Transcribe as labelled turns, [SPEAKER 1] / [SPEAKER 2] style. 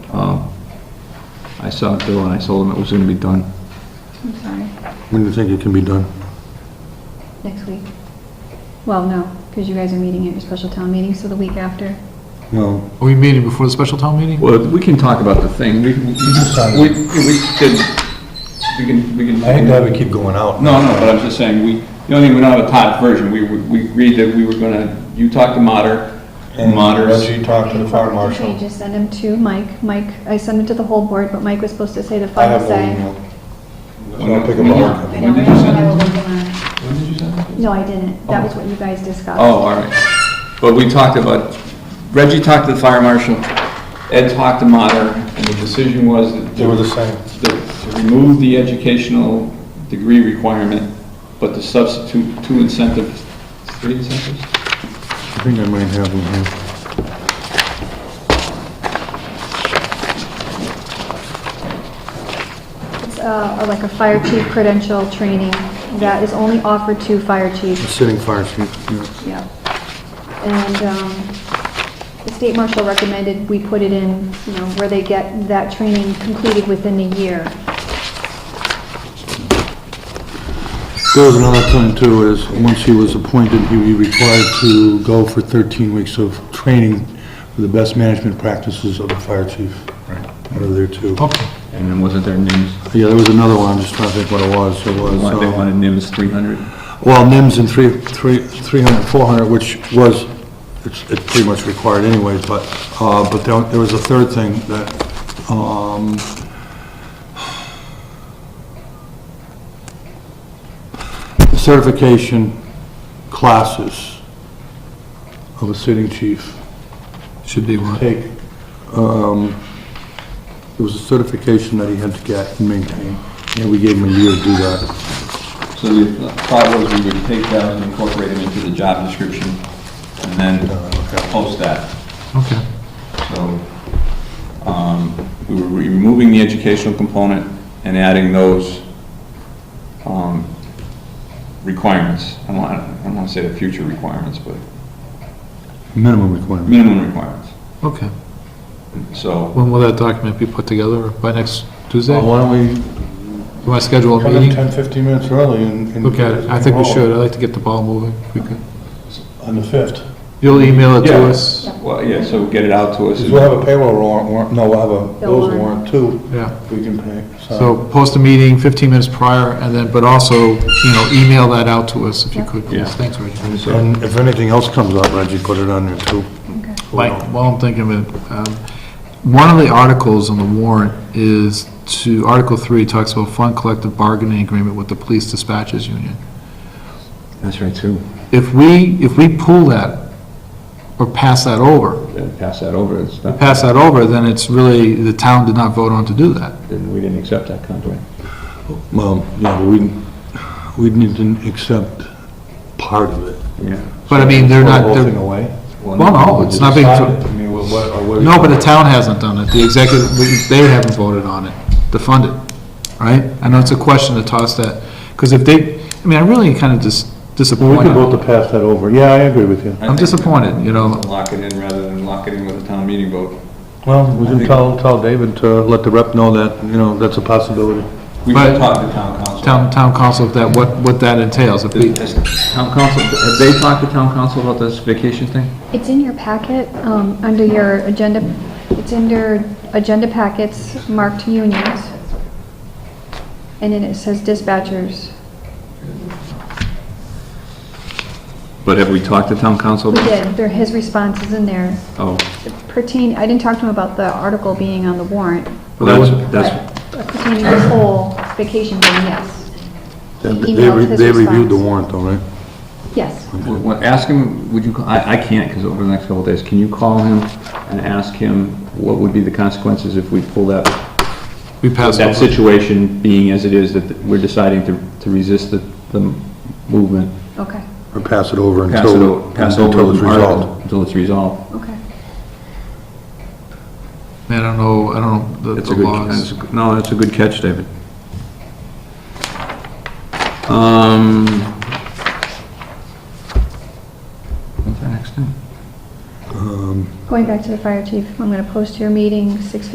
[SPEAKER 1] saw it Bill and Um, I told him it was gonna be done.
[SPEAKER 2] I'm sorry,
[SPEAKER 3] When do you think it can be done?
[SPEAKER 2] next week. Well, no, because you guys are meeting at your special town meeting, so the week after.
[SPEAKER 3] Well,
[SPEAKER 4] Are we meeting before the special town meeting?
[SPEAKER 1] Well, we can talk about the thing, we, we, we we can, we can, we can.
[SPEAKER 3] I hate to have it keep going out.
[SPEAKER 1] No, no, but I'm just saying, we, the only thing, we don't have a top version, we, we agreed that we were gonna, you talked to Mater,
[SPEAKER 3] And
[SPEAKER 1] Mater's,
[SPEAKER 3] Reggie talked to the fire
[SPEAKER 2] Okay,
[SPEAKER 3] marshal.
[SPEAKER 2] just send them to Mike. Mike, I sent them to the whole board, but Mike was supposed to say the
[SPEAKER 3] I have
[SPEAKER 2] final
[SPEAKER 3] no
[SPEAKER 2] say.
[SPEAKER 3] email. I'm gonna pick up.
[SPEAKER 1] When did you send
[SPEAKER 2] I
[SPEAKER 1] it?
[SPEAKER 2] will look them
[SPEAKER 1] when did you send it?
[SPEAKER 2] up. No, I didn't. That was what you guys
[SPEAKER 1] Oh,
[SPEAKER 2] discussed.
[SPEAKER 1] all right. But we talked about, Reggie talked to the fire marshal, Ed talked to Mater, and the decision was that
[SPEAKER 3] They were the same.
[SPEAKER 1] to remove the educational degree requirement, but to substitute two incentives, three incentives?
[SPEAKER 3] I think I might have them here.
[SPEAKER 2] It's uh, like a fire chief credential training that is only offered to fire
[SPEAKER 3] The
[SPEAKER 2] chiefs.
[SPEAKER 3] Sitting fire chief, yeah.
[SPEAKER 2] Yeah. And um, the state marshal recommended we put it in, you know, where they get that training completed within a year.
[SPEAKER 3] There was another thing too, is once he was appointed, he would be required to go for 13 weeks of training for the best management practices of the fire chief. Out of there too.
[SPEAKER 4] Okay.
[SPEAKER 1] And then wasn't there NIMS?
[SPEAKER 3] Yeah, there was another one, I'm just trying to think what it was. It was,
[SPEAKER 1] They
[SPEAKER 3] uh,
[SPEAKER 1] wanted NIMS 300?
[SPEAKER 3] well, NIMS and three, three, 300, 400, which was, it's, it's pretty much required anyways, but, uh, but there, there was a third thing that, um, certification classes of a sitting chief
[SPEAKER 4] Should be what?
[SPEAKER 3] take, um, it was a certification that he had to get and maintain, and we gave him a year to do that.
[SPEAKER 1] So the thought was we would take that and incorporate it into the job description, and then post that.
[SPEAKER 4] Okay.
[SPEAKER 1] So, um, we were removing the educational component and adding those, um, requirements. I don't, I don't wanna say the future requirements, but
[SPEAKER 3] Minimum requirement.
[SPEAKER 1] minimum requirements.
[SPEAKER 4] Okay.
[SPEAKER 1] So,
[SPEAKER 4] When will that document be put together? By next Tuesday?
[SPEAKER 3] Well,
[SPEAKER 4] You
[SPEAKER 3] Why don't we
[SPEAKER 4] want to schedule a
[SPEAKER 3] Come in
[SPEAKER 4] meeting?
[SPEAKER 3] 10, 15 minutes early and... and
[SPEAKER 4] Look at it. I think we
[SPEAKER 3] roll
[SPEAKER 4] should. I'd like to get the ball moving if we could.
[SPEAKER 3] On the 5th.
[SPEAKER 4] You'll email it to
[SPEAKER 1] Yeah.
[SPEAKER 4] us?
[SPEAKER 1] well, yeah, so get it out to us.
[SPEAKER 3] Because we'll have a payroll warrant, warrant- no, we'll have a
[SPEAKER 2] Bill
[SPEAKER 3] bills warrant
[SPEAKER 2] warrant.
[SPEAKER 3] too,
[SPEAKER 4] Yeah.
[SPEAKER 3] we can pay, so...
[SPEAKER 4] So post a meeting 15 minutes prior and then, but also, you know, email that out to us if you could,
[SPEAKER 1] Yeah.
[SPEAKER 4] please. Thanks, Reggie.
[SPEAKER 3] And if anything else comes up, Reggie, put it on there too.
[SPEAKER 2] Okay.
[SPEAKER 4] Mike, while I'm thinking of it, um, one of the articles on the warrant is to, Article 3 talks about fund collective bargaining agreement with the police dispatches union.
[SPEAKER 1] That's right, too.
[SPEAKER 4] If we, if we pull that or pass that over,
[SPEAKER 1] Pass that over, it's not,
[SPEAKER 4] pass that over, then it's really, the town did not vote on to do that.
[SPEAKER 1] we didn't accept that contract.
[SPEAKER 3] Well, yeah, but we, we need to accept part of it.
[SPEAKER 1] Yeah.
[SPEAKER 4] But I mean, they're not,
[SPEAKER 3] Throw the whole
[SPEAKER 4] they're,
[SPEAKER 3] thing away.
[SPEAKER 4] well, no, it's not being,
[SPEAKER 3] Decide it? I mean, what- what- or what do you-
[SPEAKER 4] no, but the town hasn't done it. The executive, they haven't voted on it, to fund it, right? I know it's a question to toss that, because if they, I mean, I really kind of dis
[SPEAKER 3] Well, we can vote
[SPEAKER 4] disappointed.
[SPEAKER 3] to pass that over, yeah, I agree with you.
[SPEAKER 1] I
[SPEAKER 4] I'm
[SPEAKER 1] think-
[SPEAKER 4] disappointed, you know.
[SPEAKER 1] Lock it in rather than lock it in with a town meeting vote.
[SPEAKER 3] Well, we
[SPEAKER 1] I
[SPEAKER 3] can
[SPEAKER 1] think-
[SPEAKER 3] tell, tell David to let the rep know that, you know, that's a possibility.
[SPEAKER 1] We
[SPEAKER 4] But-
[SPEAKER 1] should talk to town council.
[SPEAKER 4] Town, town council, if that, what, what that entails, if we,
[SPEAKER 1] Has town council, have they talked to town council about this vacation thing?
[SPEAKER 2] It's in your packet, um, under your agenda, it's under agenda packets marked unions. And then it says dispatchers.
[SPEAKER 1] But have we talked to town council?
[SPEAKER 2] We did, there, his response is in there
[SPEAKER 1] Oh,
[SPEAKER 2] pertain, I didn't talk to him about the article being on the warrant,
[SPEAKER 1] well, that's, that's,
[SPEAKER 2] but pertaining to the whole vacation thing, yes. He
[SPEAKER 3] They
[SPEAKER 2] emailed
[SPEAKER 3] re-
[SPEAKER 2] his
[SPEAKER 3] they reviewed the
[SPEAKER 2] response.
[SPEAKER 3] warrant though, right?
[SPEAKER 2] Yes,
[SPEAKER 1] Well, well, ask him, would you, ca- I, I can't, because over the next couple of days, can you call him and ask him what would be the consequences if we pull that,
[SPEAKER 4] we pass
[SPEAKER 1] that
[SPEAKER 4] over.
[SPEAKER 1] situation being as it is, that we're deciding to, to resist the, the movement?
[SPEAKER 2] okay,
[SPEAKER 3] Or pass it over
[SPEAKER 1] Pass it
[SPEAKER 3] until,
[SPEAKER 1] over, pass over
[SPEAKER 3] until it's
[SPEAKER 1] the article,
[SPEAKER 3] resolved.
[SPEAKER 1] until it's resolved.
[SPEAKER 2] okay.
[SPEAKER 4] I don't know, I don't know the
[SPEAKER 1] It's
[SPEAKER 4] the
[SPEAKER 1] a good,
[SPEAKER 4] laws.
[SPEAKER 1] that's a- no, that's a good catch, David. Um, what's our next thing?
[SPEAKER 2] Going back to the fire chief, I'm gonna post your meeting six